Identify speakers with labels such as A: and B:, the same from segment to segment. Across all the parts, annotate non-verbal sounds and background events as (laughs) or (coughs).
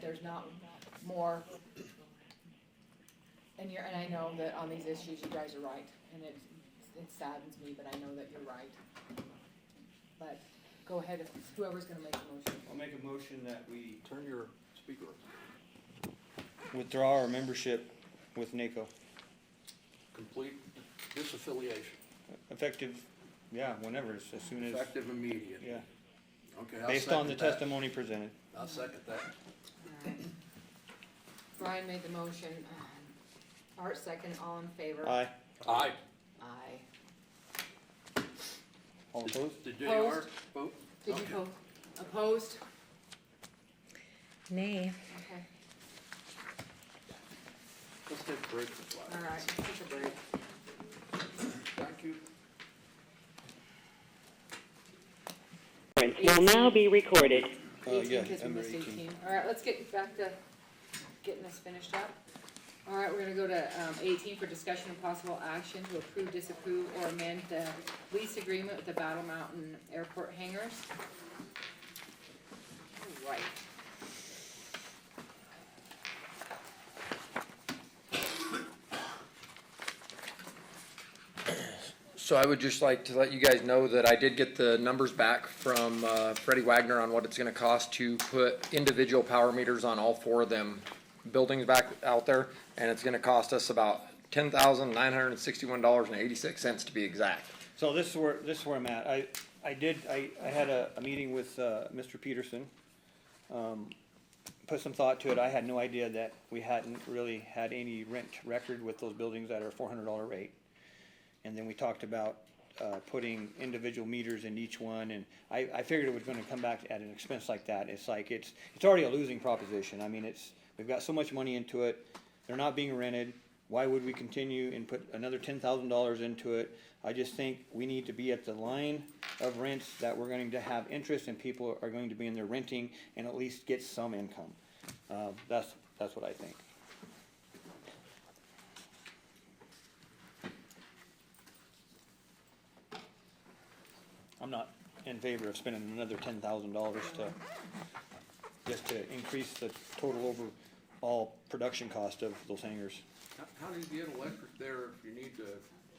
A: there's not more. And you're, and I know that on these issues, you guys are right, and it, it saddens me, but I know that you're right. But go ahead, if- whoever's gonna make the motion.
B: I'll make a motion that we
C: Turn your speaker.
B: withdraw our membership with NACO,
C: Complete disaffiliation,
B: effective, yeah, whenever, as as soon as,
C: effective immediate.
B: yeah,
C: Okay, I'll second that.
B: based on the testimony presented.
C: I'll second that.
A: Alright. Brian made the motion, um, Art second, all in favor?
B: Aye.
C: Aye.
A: Aye.
B: All opposed?
C: Did JR
A: Opposed?
C: vote?
A: Did you
C: Okay.
A: vote opposed?
D: Nay.
A: Okay,
C: Let's take a break for five.
A: alright, take a break.
C: Thank you.
E: Will now be recorded.
B: Uh,
C: Oh,
A: Eighteen,
B: yeah,
A: 'cause we
B: number
A: missed
B: 18.
A: eighteen. All right, let's get back to getting this finished up. All right, we're gonna go to, um, eighteen for discussion of possible action to approve, disapprove, or amend the lease agreement with the Battle Mountain Airport hangars. All Right.
F: So I would just like to let you guys know that I did get the numbers back from uh, Freddie Wagner on what it's gonna cost to put individual power meters on all four of them buildings back out there, and it's gonna cost us about ten thousand nine hundred and sixty-one dollars and eighty-six cents to be exact.
B: So this is where, this is where I'm at. I, I did, I, I had a, a meeting with, uh, Mr. Peterson. Um, put some thought to it. I had no idea that we hadn't really had any rent record with those buildings at our four hundred dollar rate. And then we talked about, uh, putting individual meters in each one and I, I figured it was gonna come back at an expense like that. It's like, it's, it's already a losing proposition. I mean, it's, we've got so much money into it. They're not being rented. Why would we continue and put another ten thousand dollars into it? I just think we need to be at the line of rents that we're going to have interest and people are going to be in there renting and at least get some income. Uh, that's, that's what I think. I'm not in favor of spending another ten thousand dollars to, just to increase the total overall production cost of those hangars.
C: How- How do you get electric there if you need to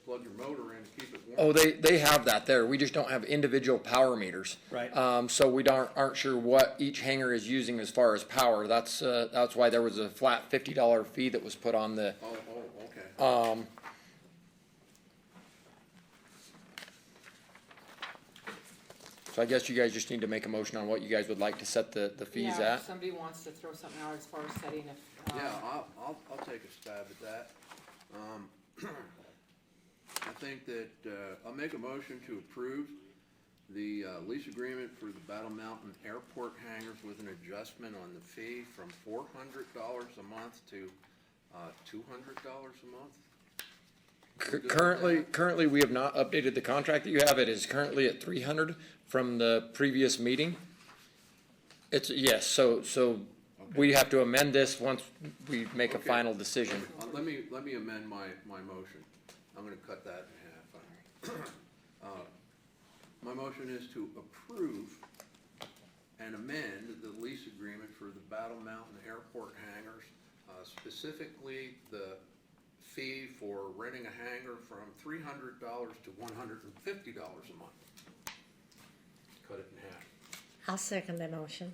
C: plug your motor in to keep it warm?
F: Oh, they, they have that there, we just don't have individual power meters.
B: Right.
F: Um, so we don't, aren't sure what each hangar is using as far as power, that's, uh, that's why there was a flat fifty dollar fee that was put on the,
C: Oh, oh, okay.
F: so I guess you guys just need to make a motion on what you guys would like to set the, the fees
A: Yeah,
F: at.
A: if Somebody wants to throw something out as far as setting if, um,
C: Yeah, I'll, I'll, I'll take a stab at that. Um, (clears throat) I think that, uh, I'll make a motion to approve the, uh, lease agreement for the Battle Mountain Airport hangars with an adjustment on the fee from four hundred dollars a month to, uh, two hundred dollars a month.
F: Cur- Currently, currently, we have not updated the contract that you have. It is currently at three hundred from the previous meeting. It's, yes, so, so we have to amend this once we make a
C: Okay.
F: final decision.
C: Uh, let me, let me amend my, my motion. I'm gonna cut that in half. (coughs) Uh, My motion is to approve and amend the lease agreement for the Battle Mountain Airport hangars, uh, specifically the fee for renting a hangar from three hundred dollars to one hundred and fifty dollars a month. Cut it in half.
D: I'll second the motion.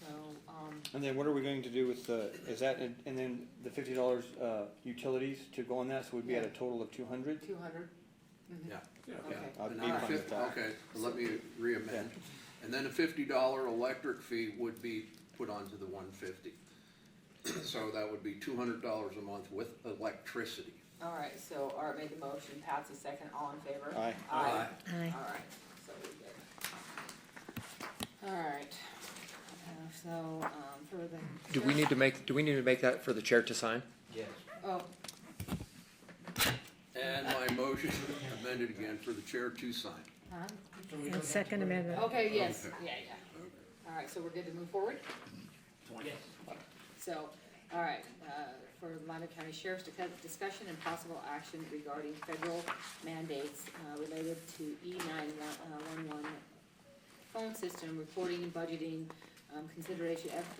A: so, um,
B: And then what are we going to do with the, is that, and and then the fifty dollars, uh, utilities to go on that, so we'd be at a total of two hundred?
A: two hundred?
C: Yeah.
A: Okay.
C: yeah.
B: I'd
C: And
B: be
C: then the
B: fine with
C: fif-
B: that.
C: Okay, let me re-amend. And then a fifty dollar electric fee would be put onto the one fifty. So that would be two hundred dollars a month with electricity.
A: All right, so Art made the motion, Pat's the second, all in favor?
B: Aye.
A: Aye.
D: Aye.
A: All right, so we good. All right, Uh, so, um, for the.
F: Do we need to make, do we need to make that for the chair to sign?
C: Yes.
A: Oh,
C: And my motion (laughs) amended again for the chair to sign.
A: huh?
D: And second amendment.
A: Okay, yes,
C: Okay.
A: yeah, yeah. All right, so we're good to move forward? So, all right, uh, for Lander County Sheriff's dic- discussion and possible action regarding federal mandates uh, related to E nine one one phone system, reporting and budgeting, um, consideration of